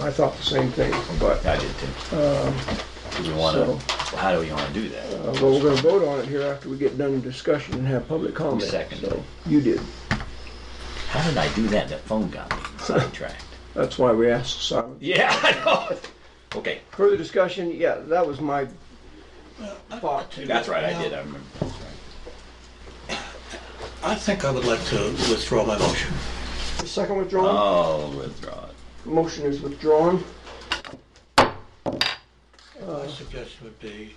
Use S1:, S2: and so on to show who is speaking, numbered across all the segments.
S1: I thought the same thing, but, uh,
S2: I did too. Do we
S1: so,
S2: wanna, how do we wanna do that?
S1: uh, well, we're gonna vote on it here after we get done with discussion and have public comment.
S2: seconded?
S1: So, You did.
S2: How did I do that? and The phone got me sidetracked.
S1: That's why we asked silence.
S2: Yeah, I know. Okay,
S1: Further discussion, yeah, that was my thought.
S2: that's right, I did, I remember. That's right.
S3: I think I would like to withdraw my motion.
S1: The second
S2: Uh,
S1: withdrawal,
S2: I'll Oh, withdraw it.
S1: motion is withdrawn.
S3: My suggestion would be,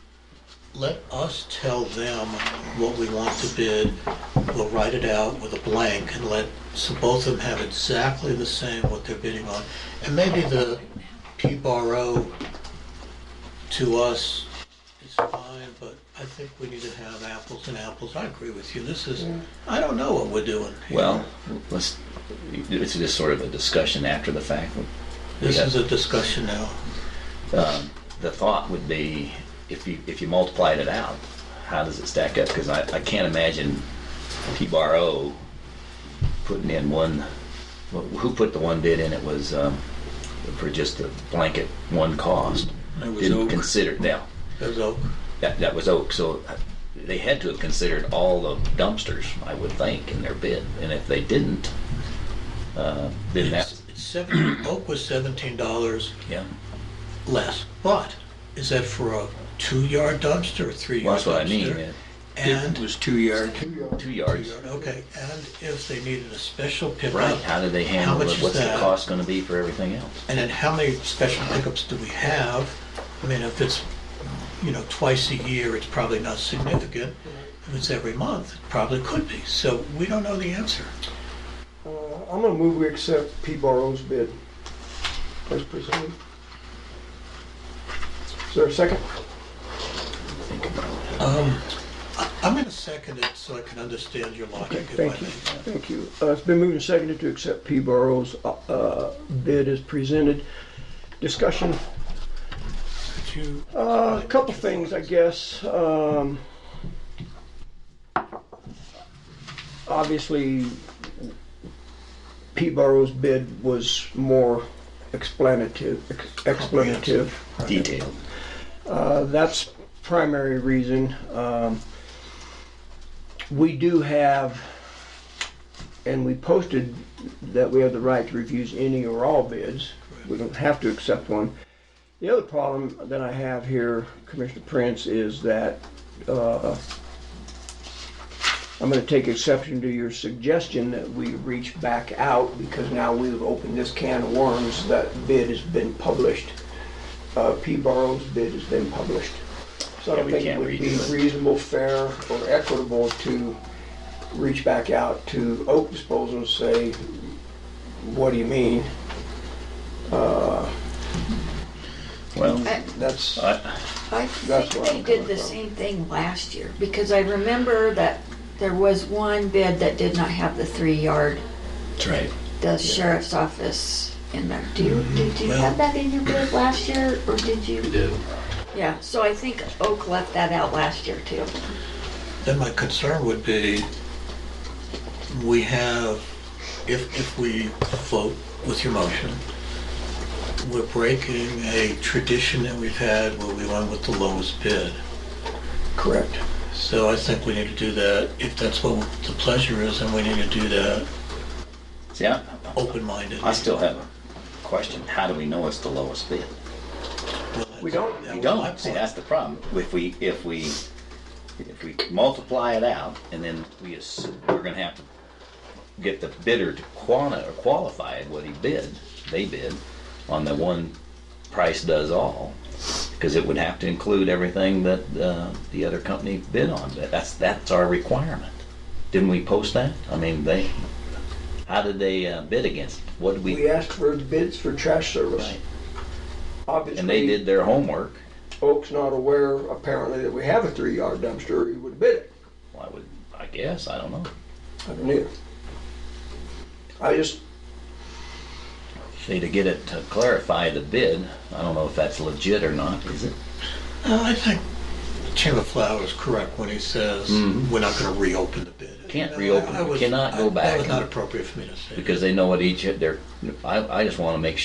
S3: let us tell them what we want to bid. We'll write it out with a blank and let, so both of them have exactly the same what they're bidding on. And maybe the P-borrow to us is fine, but I think we need to have apples and apples. I agree with you. This is, I don't know what we're doing. here.
S2: Well, let's, it's just sort of a discussion after the fact.
S3: This
S2: yeah.
S3: is a discussion now.
S2: Um, The thought would be, if you, if you multiplied it out, how does it stack up? Because I, I can't imagine P-Bar-O putting in one, wh- who put the one bid in? It was um, for just a blanket, one cost.
S3: It was
S2: Didn't
S3: Oak.
S2: consider, now,
S3: There's Oak.
S2: that, that was Oak, so uh, they had to have considered all the dumpsters, I would think, in their bid. And if they didn't, uh, then
S3: It's-
S2: that's,
S3: it's seven- Oak was seventeen dollars.
S2: yeah.
S3: less. But is that for a two-yard dumpster or
S2: Well,
S3: three-yard
S2: that's what I mean,
S3: dumpster?
S2: yeah.
S3: And,
S4: was two yard.
S2: two yards.
S3: two-yard, okay, and if they needed a special
S2: Right,
S3: pickup,
S2: how do they handle
S3: much
S2: it?
S3: is
S2: What's the
S3: that?
S2: cost gonna be for everything else?
S3: and then how many special pickups do we have? I mean, if it's, you know, twice a year, it's probably not significant. If it's every month, it probably could be. So we don't know the answer.
S1: Uh, I'm gonna move we accept P Barrow's bid as presented. Is there a second?
S2: Think about it.
S3: Um, I- I'm gonna second it so I can understand your logic if I
S1: Thank you,
S3: may.
S1: thank you. Uh, It's been moved and seconded to accept P. Barrow's uh, bid as presented. Discussion,
S3: Could you-
S1: Uh, a couple things, I guess. Um, Obviously, P. Barrow's bid was more explanative, explanative.
S2: Detailed.
S1: Uh, That's primary reason. Um, We do have, and we posted that we have the right to refuse any or all bids. We don't have to accept one. The other problem that I have here, Commissioner Prince, is that uh, I'm going to take exception to your suggestion that we reach back out because now we've opened this can of worms. That bid has been published uh, P. Barrow's bid has been published. So I
S2: Yeah,
S1: don't
S2: we
S1: think it
S2: can't
S1: would be
S2: redo it.
S1: reasonable, fair, or equitable to reach back out to Oak Disposal and say, what do you mean?
S2: Well,
S5: I-
S1: That's,
S2: I,
S5: I
S1: That's
S5: think
S1: where I'm
S5: they did
S1: coming
S5: the
S1: from.
S5: same thing last year, because I remember that there was one bid that did not have the three-yard,
S2: that's right.
S5: the sheriff's office in there. Do you, did you have that in your bid last year, or did you?
S4: did.
S5: Yeah, so I think Oak left that out last year too.
S3: Then my concern would be, we have, if, if we vote with your motion, we're breaking a tradition that we've had where we went with the lowest bid.
S1: correct.
S3: So I think we need to do that, if that's what the pleasure is, then we need to do that
S2: See, I,
S3: open-minded.
S2: I still have a question. How do we know it's the lowest bid?
S3: Well,
S1: We don't-
S3: that
S2: We
S3: was my
S2: don't. See,
S3: point.
S2: that's the problem. If we, if we, if we multiply it out and then we, ass- we're gonna have to get the bidder to quanti or qualify it, what he bid, they bid, on the one price does all. Because it would have to include everything that, uh, the other company bid on. That- That's, that's our requirement. Didn't we post that? I mean, they, how did they uh, bid against? it? What did
S1: We
S2: we?
S1: asked for bids for trash service.
S2: Right. And they
S1: Obviously,
S2: did their homework.
S1: Oak's not aware apparently that we have a three-yard dumpster, or he would bid it.
S2: Well, I would, I guess, I don't know.
S1: I don't know. I just,
S2: See, to get it to clarify the bid, I don't know if that's legit or not, is it?
S3: No, I think Chamber Flower is correct when he says, we're not gonna reopen the bid.
S2: Mm-hmm. Can't
S3: No,
S2: reopen
S3: I- I
S2: it.
S3: was-
S2: Cannot go
S3: I-
S2: back
S3: That was
S2: and-
S3: not appropriate for me to say.
S2: Because they know what each, they're, I, I just wanna make sure.